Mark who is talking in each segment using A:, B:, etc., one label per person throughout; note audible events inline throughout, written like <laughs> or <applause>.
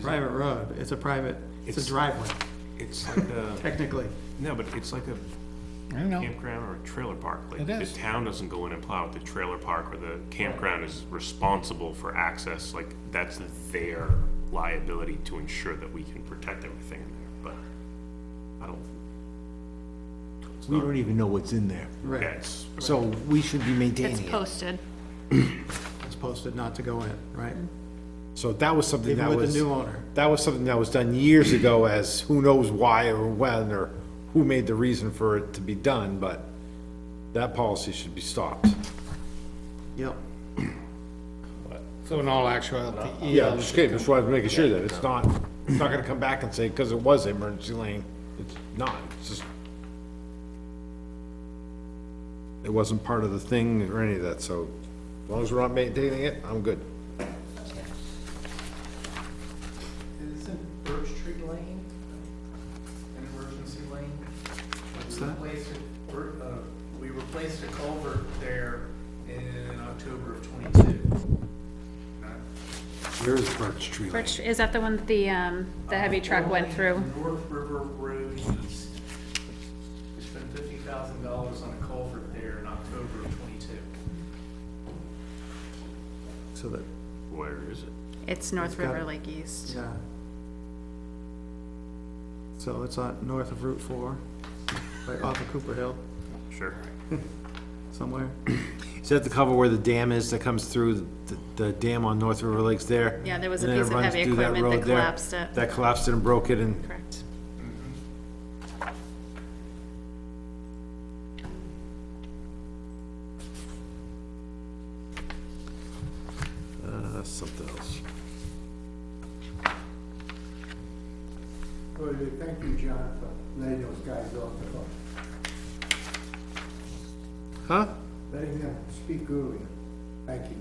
A: private road, it's a private, it's a
B: It's-
A: driveway,
B: It's like a,
A: technically.
B: no, but it's like a
C: I know.
B: campground or a trailer park. Like,
C: It is.
B: The town doesn't go in and plow it. The trailer park or the campground is responsible for access. Like, that's their liability to ensure that we can protect everything in there, but I don't. it's
D: We
B: not-
D: don't even know what's in there,
B: Yeah,
A: Right,
B: it's,
D: so we should be
E: It's
D: maintaining it.
E: posted.
A: it's posted not to go in, right?
F: So that was something
A: Even
F: that
A: with
F: was,
A: the new owner.
F: that was something that was done years ago as who knows why or when or who made the reason for it to be done, but that policy should be stopped.
A: Yep.
C: So in all
A: E
C: actuality,
F: Uh, Yeah, just kidding, that's why I was making sure that it's not, it's not gonna come back and say, because it was emergency lane, it's not, it's just. It wasn't part of the thing or any of that, so as long as we're not maintaining it, I'm good.
G: Isn't Birch Tree Lane an emergency lane? What's that? uh, We replaced a culvert there in October of twenty-two.
F: There is birch tree
E: Birch, is that the one that the, um, the heavy truck
A: Oh.
E: went through?
G: Uh, North River Road East. We spent fifty thousand dollars on a culvert there in October of twenty-two.
A: So that,
B: where is it?
E: It's North
A: got-
E: River Lake East.
A: yeah. So it's on north of Route Four, like off of Cooper Hill,
B: Sure.
A: somewhere.
F: Is that the cover where the dam is that comes through, the, the dam on North River Lakes there?
E: Yeah, there was a
F: And then it
E: piece of
F: runs
E: heavy
F: through
E: equipment that
F: road there?
E: collapsed it.
F: That collapsed it and broke it and,
E: Correct.
F: uh, that's something else.
H: Well, thank you, John, for letting those guys off the hook,
F: Huh?
H: letting them speak earlier. Thank you.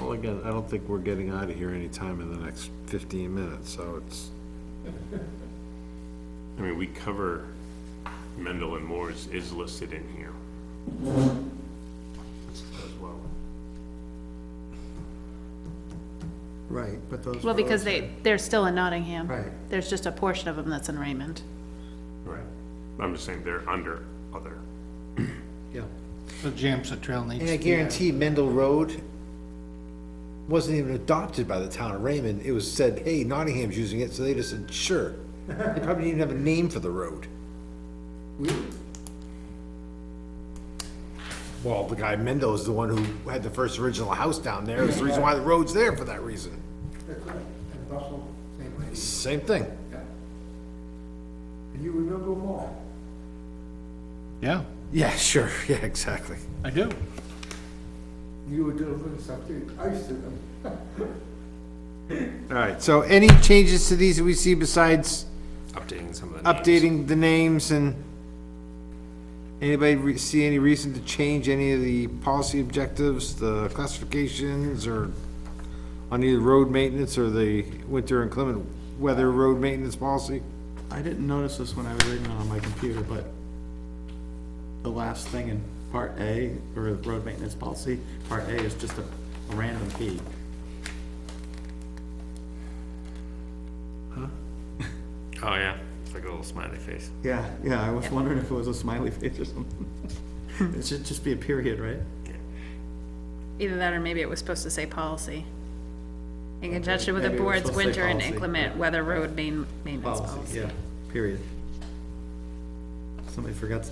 F: Well, again, I don't think we're getting out of here anytime in the next fifteen minutes, so it's,
B: I mean, we cover Mendel and Moore's is listed in here. As well.
A: Right, but those.
E: Well, because they, they're still in Nottingham.
A: Right.
E: There's just a portion of them that's in Raymond.
B: Right. I'm just saying they're under other.
A: Yeah,
C: so James, the trail needs
D: And I
C: to be.
D: guarantee Mendel Road wasn't even adopted by the town of Raymond, it was said, hey, Nottingham's using it, so they just said, sure. They probably didn't even have a name for the road.
F: well, the guy Mendo is the one who had the first original house down there, it's the reason why the road's there for that reason.
H: That's right, and Russell, same way.
F: Same thing.
H: Yeah. And you remember them all.
C: Yeah,
F: Yeah,
D: <laughs>
F: sure, yeah, exactly.
C: I do.
H: You were delivering something, I used to them.
F: All right, so any changes to these that we see besides
B: Updating some of the
F: updating the names and anybody re- see any reason to change any of the policy objectives, the classifications, or on either road maintenance or the winter inclement weather road maintenance policy?
A: I didn't notice this when I was reading it on my computer, but the last thing in part A, or the road maintenance policy, part A is just a, a random P.
B: <laughs> Oh, yeah. It's like a little smiley face.
A: Yeah, yeah, I was wondering if it was a smiley face or something. <laughs> It should just be a period, right?
E: Either that or maybe it was supposed to say policy. In conjunction with the
A: Maybe it was
E: board's
A: supposed to say
E: winter and
A: policy,
E: inclement
A: yeah.
E: weather road main, maintenance
A: Policy,
E: policy.
A: yeah, period. Somebody forgot, to-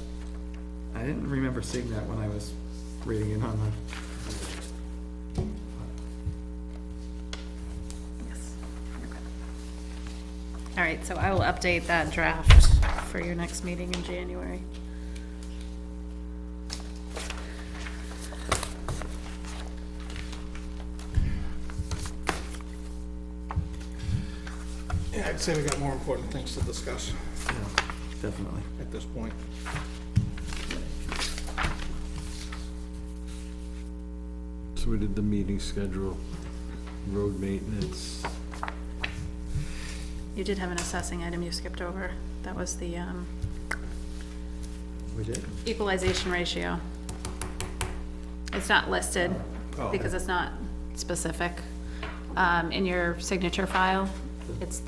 A: I didn't remember seeing that when I was reading it on the,
E: Yes. Okay. All right, so I will update that draft for your next meeting in January.
C: Yeah, I'd say we got more important things to discuss
A: definitely.
C: at this point.
F: So we did the meeting schedule, road maintenance.
E: You did have an assessing item you skipped over. That was the, um,
A: We did?
E: equalization ratio. It's not listed because it's not specific. Um, in your signature file, It's